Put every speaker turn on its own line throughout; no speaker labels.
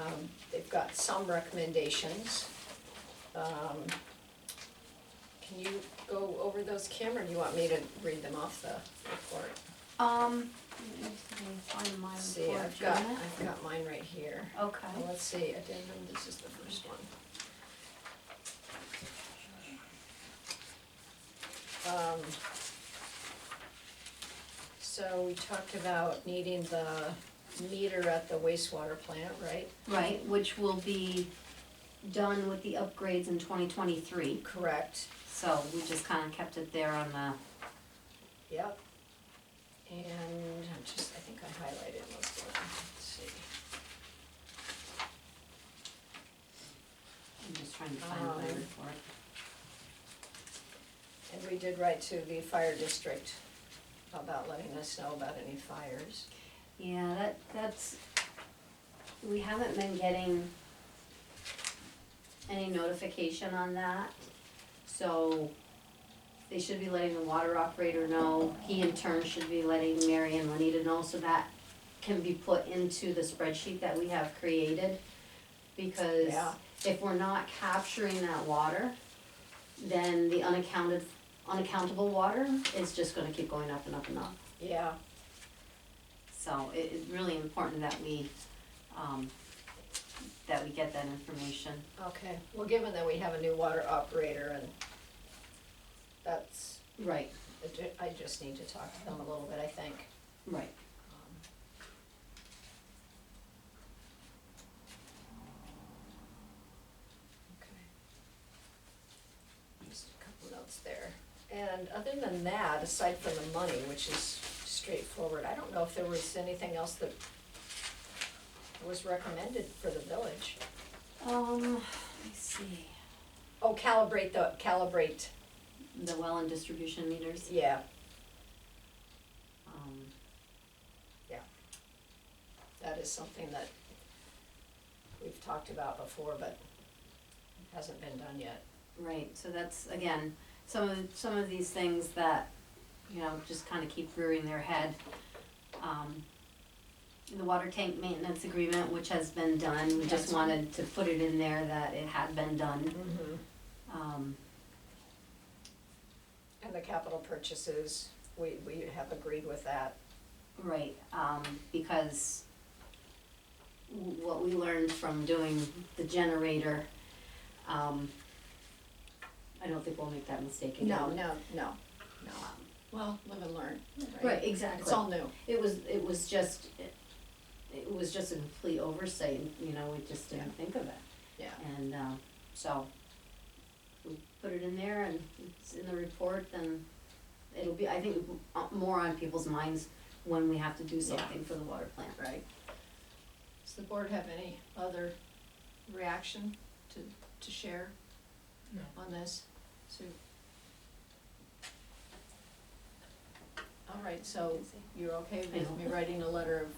Um, they've got some recommendations. Um, can you go over those, Kim, or do you want me to read them off the report?
Um, let me find my
See,
report,
I've got, I've got mine right here.
Okay,
Well, let's see, addendum, this is the first one. Um, So we talked about needing the meter at the wastewater plant, right?
right, which will be done with the upgrades in twenty twenty-three,
Correct,
so we just kinda kept it there on the,
yep. And I'm just, I think I highlighted most of them, let's see.
I'm just trying to find my
Um,
report.
And we did write to the fire district about letting us know about any fires.
Yeah, that, that's, we haven't been getting any notification on that, so they should be letting the water operator know, he in turn should be letting Mary and Lenita know, so that can be put into the spreadsheet that we have created. Because
Yeah.
if we're not capturing that water, then the unaccounted, unaccountable water is just gonna keep going up and up and up.
Yeah,
So it is really important that we, um, that we get that information.
Okay, well, given that we have a new water operator and that's,
Right.
I ju- I just need to talk to them a little bit, I think.
Right.
Um, Um, Okay. Just a couple notes there. And other than that, aside from the money, which is straightforward, I don't know if there was anything else that was recommended for the village.
Um, let me see,
Oh, calibrate the, calibrate,
the well and distribution meters,
yeah,
um,
that is something that we've talked about before, but hasn't been done yet.
right, so that's, again, some of, some of these things that, you know, just kinda keep rearing their head. Um, the water tank maintenance agreement, which has been done, we just
Yes.
wanted to put it in there that it had been done, um,
And the capital purchases, we, we have agreed with that.
Right, um, because w- what we learned from doing the generator, um, I don't think we'll make that mistake again.
No, no, no, no.
Um,
Well, live and learn,
Right,
It's
exactly.
all new.
It was, it was just, it- it was just a complete oversight, you know, we just didn't think of it.
Yeah.
And, um, so, we put it in there and it's in the report and it'll be, I think, uh, more on people's minds when we have to do
Yeah.
something for the water plant.
Right. Does the board have any other reaction to, to share
No.
on this? So. All right, so you're okay with me writing a letter of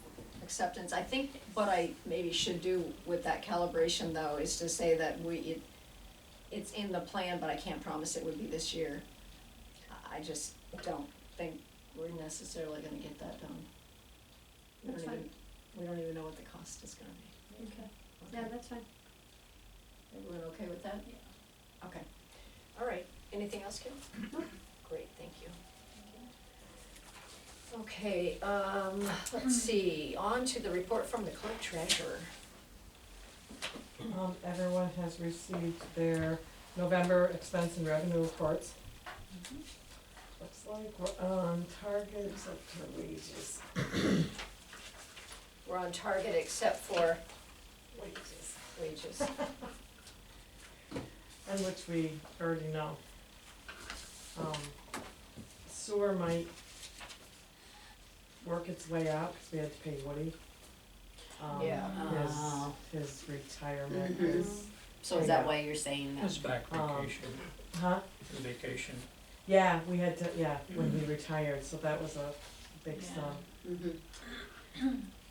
acceptance? I think what I maybe should do with that calibration though is to say that we, it, it's in the plan, but I can't promise it would be this year. I- I just don't think we're necessarily gonna get that done. We don't
That's fine.
even- We don't even know what the cost is gonna be.
Okay.
Okay.
Yeah, that's fine.
Everyone okay with that? Yeah. Okay, all right, anything else, Kim?
No.
Great, thank you. Okay, um, let's see, on to the report from the clerk treasurer.
Um, everyone has received their November expense and revenue reports. Looks like we're on target, except for wages,
We're on target except for
wages,
wages.
and which we already know. Um, sewer might work its way out, cause we had to pay Woody. Um,
Yeah.
Oh.
His, his retirement
Mhm.
is,
So is that why you're saying
His
that?
back
Um,
vacation,
huh?
his vacation.
Yeah, we had to, yeah, when he retired, so that was a big
Yeah.
sum.
Mm-hmm.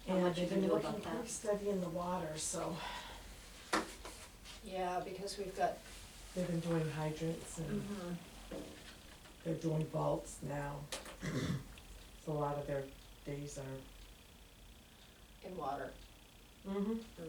How
And
much
they've
you
been
knew
looking
about that?
pretty steady in the water, so
Yeah, because we've got, mm-hmm,
they've been doing hydrants
Mm.
and they're doing vaults now. So a lot of their days are.
in water.
Mm-hmm.